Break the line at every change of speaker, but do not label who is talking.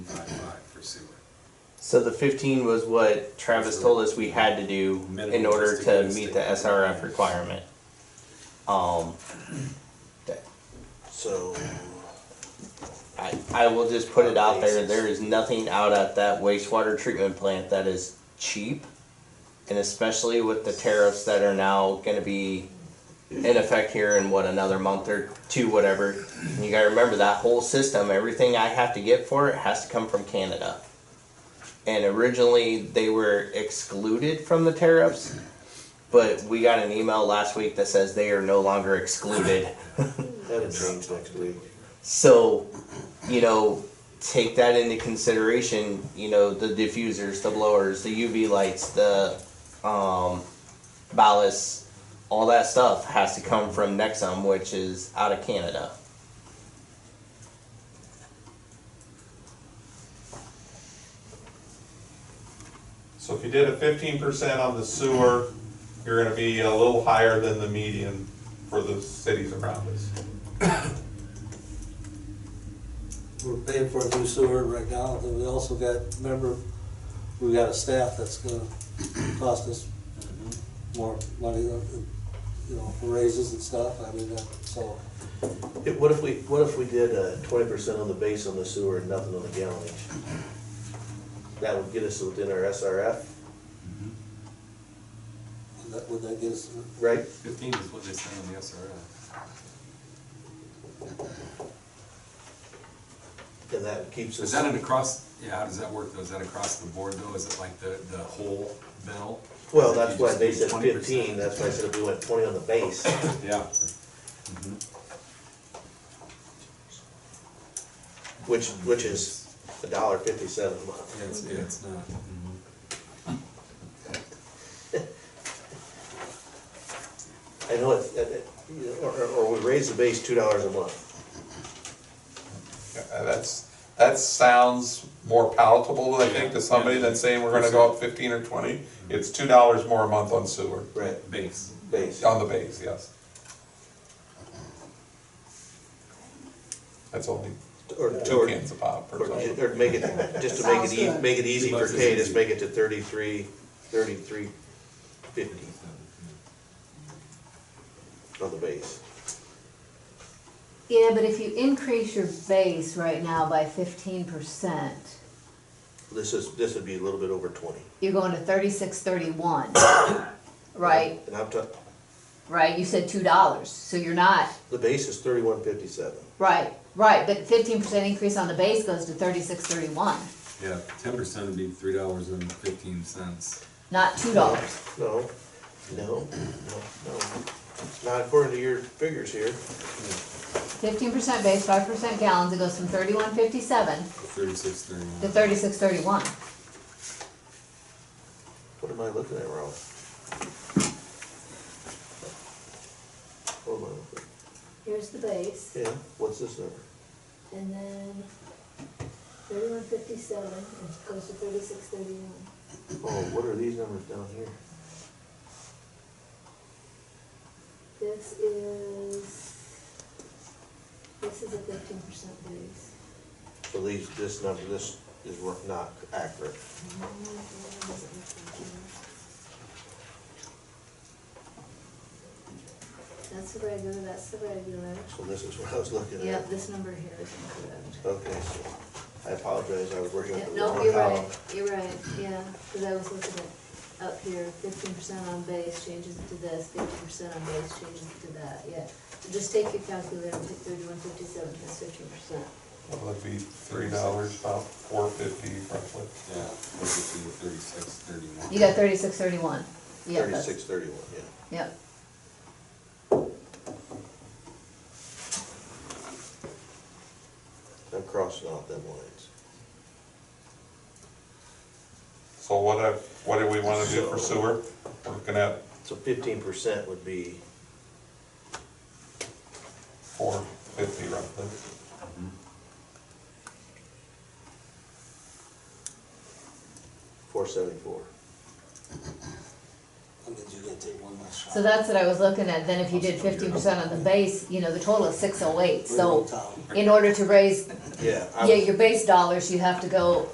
So the 15 was what Travis told us we had to do in
Minimum
order
just to
to
get a
meet
state
the SRF requirement. Um, that-
So,
I, I will just put it out there, there is nothing out at that wastewater treatment plant that is cheap. And especially with the tariffs that are now gonna be in effect here in what, another month or two, whatever. And you gotta remember that whole system, everything I have to get for it has to come from Canada. And originally, they were excluded from the tariffs, but we got an email last week that says they are no longer excluded.
that'll change next week.
So, you know, take that into consideration. You know, the diffusers, the blowers, the UV lights, the um, ballasts, all that stuff has to come from Nexum, which is out of Canada.
So if you did a fifteen percent on the sewer, you're gonna be a little higher than the median for the cities around us.
We're paying for it through sewer right now, and we also got, remember, we got a staff that's gonna cost us more money, you know, for raises and stuff, I mean, that- so.
It- What if we, what if we did uh, twenty percent on the base on the sewer and nothing on the gallonage? That would get us within our SRF,
Would that, would that get us,
right?
Fifteen is what they spend on the SRF.
And that keeps us.
Is that an across, yeah, how does that work though? Is that across the board though? Is it like the, the whole bill?
Well,
Is it
that's
you
why
just
they
need
said
20%?
fifteen, that's why I said if we went twenty on the base,
Yeah,
which, which is a dollar fifty-seven a month.
yeah, it's, yeah, it's not. mm-hmm.
I know it, it- it- or, or- or we raise the base two dollars a month.
Uh, That's, that sounds more palatable, I think, to somebody than saying we're gonna go up fifteen or twenty. It's two dollars more a month on sewer,
Right.
Base.
Base.
Oh.
on the base, yes. That's only
Or,
two
or,
cans a pop or
or
something.
or make it, just to make it ea, make it easy for
Sounds good.
Kay, just make it to thirty-three, thirty-three fifty on the base.
Yeah, but if you increase your base right now by fifteen percent,
This is, this would be a little bit over twenty.
you're going to thirty-six, thirty-one. Right,
And I'm talking,
right, you said two dollars, so you're not,
the base is thirty-one fifty-seven.
right, right, but fifteen percent increase on the base goes to thirty-six, thirty-one,
Yeah, ten percent would be three dollars and fifteen cents.
not two dollars.
No, no, no, no, not according to your figures here.
Fifteen percent base, five percent gallons, it goes from thirty-one fifty-seven
Thirty-six, thirty-one.
to thirty-six, thirty-one.
What am I looking at wrong? What am I looking at?
Here's the base,
Yeah, what's this number?
and then thirty-one fifty-seven, it goes to thirty-six thirty-one.
Oh, what are these numbers down here?
This is, this is a fifteen percent base.
So these, this number, this is wor- not accurate.
That's the regular, that's the regular.
So this is what I was looking at.
Yep, this number here is incorrect.
Okay, so I apologize, I was working
Yeah,
on the
no,
wrong
you're
column.
right, you're right, yeah, because I was looking at up here, fifteen percent on base changes it to this, fifty percent on base changes it to that, yeah. So just take your calculator and pick thirty-one fifty-seven, that's fifteen percent.
That would be three dollars, about four fifty roughly.
Yeah, would be thirty-six, thirty-one.
You got thirty-six, thirty-one. Yeah, that's-
Thirty-six, thirty-one, yeah.
Yep.
I'm crossing out them lines.
So what, I- what do we wanna do for sewer? We're looking at
So fifteen percent would be,
four fifty roughly.
four seventy-four.
I mean, you gotta take one last shot.
So that's what I was looking at, then if you did fifteen percent on the base, you know, the total is six oh eight,
We're in
so
town.
in order to raise
Yeah. I
Yeah,
was-
your base dollars, you have to go